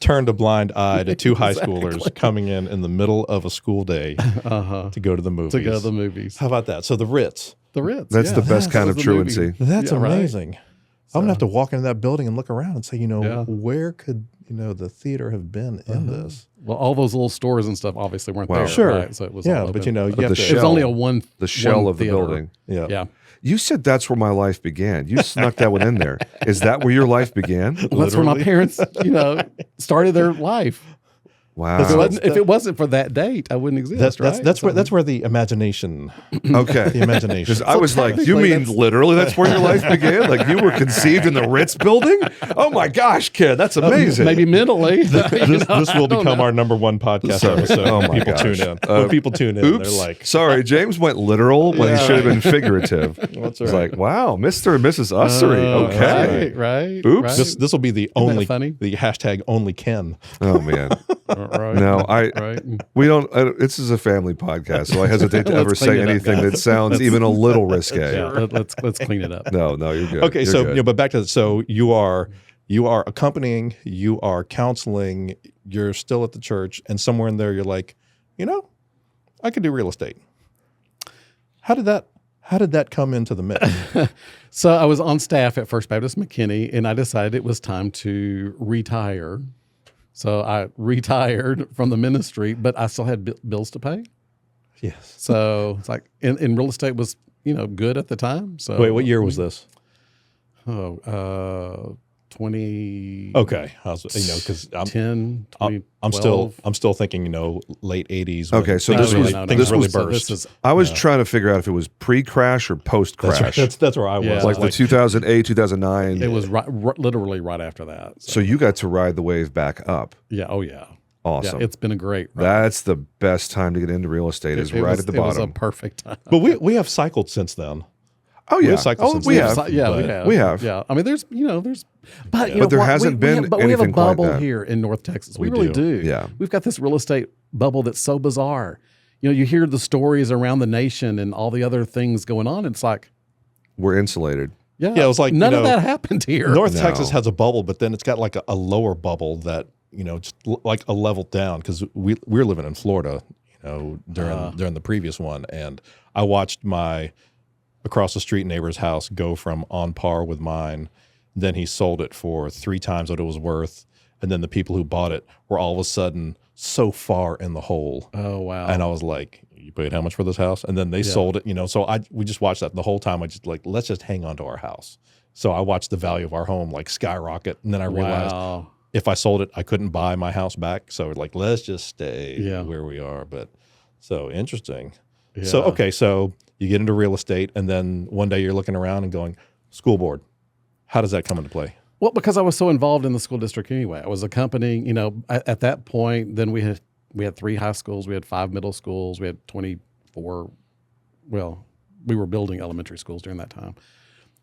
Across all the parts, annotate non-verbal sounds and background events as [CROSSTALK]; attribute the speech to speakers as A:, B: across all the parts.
A: turned a blind eye [LAUGHS] to two high schoolers coming in in the middle of a school [LAUGHS] day
B: Uh huh.
A: to go to the movies.
B: To go to the movies.
A: How about that? So the Ritz.
B: The Ritz.
C: That's the
B: yeah.
C: best kind
B: That
C: of
B: was the movie.
C: truancy.
A: That's
B: Yeah, right.
A: amazing. I'm gonna have to walk into that building and look around and say, you know,
B: Yeah.
A: where could you know the theater have been in this?
B: Well, all those little stores and stuff obviously weren't
C: Wow.
B: there.
A: Sure.
B: right? So it was
A: yeah,
B: all
A: but
B: open.
A: you know, you
C: the
A: have to,
B: it was
C: shell-
B: only a one
C: The shell
B: one
C: of the
B: theater.
C: building.
A: yeah.
B: Yeah.
C: You said that's where my life began. You snuck that one in there. Is that where your life
B: [LAUGHS]
C: began?
B: Well, that's where my
A: Literally.
B: parents, you
A: [LAUGHS]
B: know, started their life. If it
C: Wow.
B: wasn't- if it wasn't for that date, I wouldn't exist.
A: That's that's
B: right?
A: that's where
B: So-
A: that's where the imagination, the
B: [LAUGHS]
C: Okay.
A: imagination.
C: Because I [LAUGHS] was like, you
B: technically
C: mean
B: that's-
C: literally that's where your life began? Like you were conceived in the Ritz building? Oh my gosh, kid, that's amazing.
B: Maybe
C: [LAUGHS]
B: mentally. Uh, you [LAUGHS]
A: this,
B: know,
A: this will become our number one podcast
C: Sorry.
A: episode.
C: Oh
A: when
C: my
A: people
C: gosh.
A: tune in.
C: Uh,
A: when people tune in,
C: Oops.
A: they're like,
C: Sorry, James went literal when he
B: Yeah.
C: should have
B: [LAUGHS]
C: been figurative. It's like, wow, Mr. and Mrs. Ussery.
B: Oh,
C: okay.
B: Right. right
C: Oops.
B: Right.
A: this this will be the only
B: funny?
A: the hashtag only Ken.
C: Oh man.
B: right.
C: [LAUGHS] No, I
B: Right.
C: we don't I, don't- this is a family podcast, so I hesitate to
B: Let's
C: ever
B: clean
C: say
B: it up,
C: anything
B: guys.
C: that sounds even a little risque.
B: Yeah, let, us let's clean it up.
C: No, no, you're good.
A: Okay,
C: You're
A: so
C: good.
A: you know, but back to so you are you are accompanying, you are counseling, you're still at the church, and somewhere in there you're like, you know, I could do real estate. How did that how did that come into the mix?
C: [LAUGHS]
B: So I was on staff at First Baptist McKinney, and I decided it was time to retire. So I retired from the ministry, but I still had bi- bills to pay.
A: yes.
B: So it's like, and, and real estate was you know good at the time. So
A: Wait, what year was this?
B: Oh, uh, 20,
A: Okay, I was, Oh, you know, because I'm
B: 10,
A: I'm, I'm still I'm still thinking, you know, late '80s. when
C: Okay, so
A: things
C: this
A: really,
C: was-
A: things
C: this
A: really
C: was-
A: burst.
B: This is,
C: I was trying to figure out if it was pre-crash or post-crash.
A: that's, right. that's that's where I was.
B: Yeah.
C: like, the 2008, 2009.
B: it was right, right, literally right after that. So,
C: so you got to ride the wave back up.
B: yeah, oh yeah.
C: Awesome.
B: Yeah, it's been a great ride.
C: that's the best time to get into real estate is
B: It
C: right
B: was-
C: at the
B: it was a
C: bottom.
B: perfect time.
A: but we we have cycled since then.
C: oh yeah.
A: we've cycled
C: Oh,
A: since
C: we
A: then.
C: have.
B: So- yeah, we
A: but-
B: have.
C: we have.
B: Yeah, I mean, there's, you know, there's, but you know,
C: But there
B: what? We-
C: hasn't
B: we
C: been
B: have- but we have a
C: anything quite
B: bubble
C: that.
B: here in North Texas.
A: We
B: We, really do.
A: do.
C: Yeah.
B: we've got this real estate bubble that's so bizarre. You know, you hear the stories around the nation and all the other things going on. It's like,
C: We're insulated.
B: yeah,
A: Yeah, it was like,
B: none
A: you
B: of
A: know,
B: that happened here.
A: North
C: No.
A: Texas has a bubble, but then it's got like a, a lower bubble that you know, just l- like a level down because we we're living in Florida, you know, during
B: Uh.
A: during the previous one, and I watched my across the street neighbor's house go from on par with mine. Then he sold it for three times what it was worth, and then the people who bought it were all of a sudden so far in the hole.
B: oh wow.
A: And I was like, "You paid how much for this house?" And then they sold it, you know. So I we just watched that the whole time. I just like, let's just hang on to our house. So I watched the value of our home like skyrocket, and then I realized
B: wow.
A: if I sold it, I couldn't buy my house back. So like, let's just stay
B: Yeah.
A: where we are. But so interesting. So
B: Yeah.
A: okay, so you get into real estate, and then one day you're looking around and going, "School board, how does that come into play?"
B: Well, because I was so involved in the school district anyway, I was accompanying. You know, at, at that point, then we had we had three high schools, we had five middle schools, we had twenty four. Well, we were building elementary schools during that time,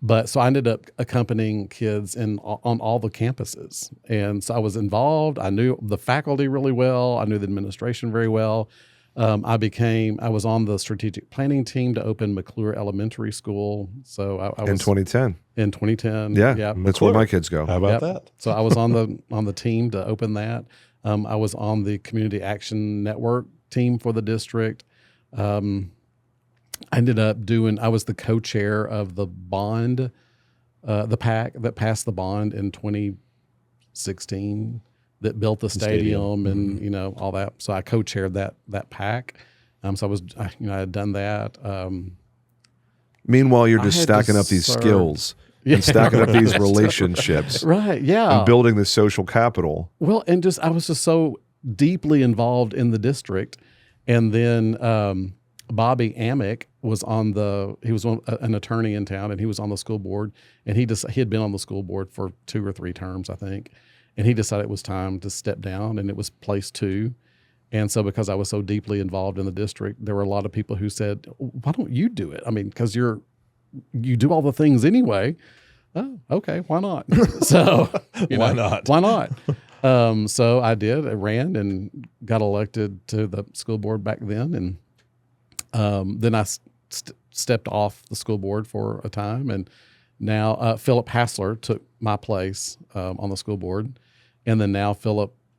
B: but so I ended up accompanying kids in on all the campuses, and so I was involved. I knew the faculty really well. I knew the administration very well. Um, I became I was on the strategic planning team to open McClure Elementary School. So I, I was
C: In 2010.
B: in 2010.
C: Yeah.
B: yeah.
C: That's where
A: McClure.
C: my kids go.
A: How about
B: Yep.
A: that?
B: So I was on the [LAUGHS] on the team to open that. Um, I was on the community action network team for the district. Um, I ended up doing. I was the co-chair of the bond, uh, the pack that passed the bond in 2016 that built the stadium,
A: stadium.
B: and you know all that. So I co-chaired that that pack. Um, so I was, I, you know, I had done that. Um,
C: Meanwhile, you're
B: I
C: just
B: had to
C: stacking up these
B: serve-
C: skills
B: yeah.
C: and stacking
B: [LAUGHS]
C: up these relationships
B: right? Yeah,
C: and building this social capital.
B: Well, and just I was just so deeply involved in the district, and then um, Bobby Amick was on the he was on, a- an attorney in town, and he was on the school board, and he just he had been on the school board for two or three terms, I think, and he decided it was time to step down, and it was place two. And so, because I was so deeply involved in the district, there were a lot of people who said, "Why don't you do it?" I mean, because you're you do all the things anyway. Oh, okay, why
A: [LAUGHS]
B: not? so, you
A: Why not?
B: Why not? Um, so I did. I ran and got elected to the school board back then, and um, then I s- st- stepped off the school board for a time, and now uh, Philip Hassler took my place um, on the school board, and then now Philip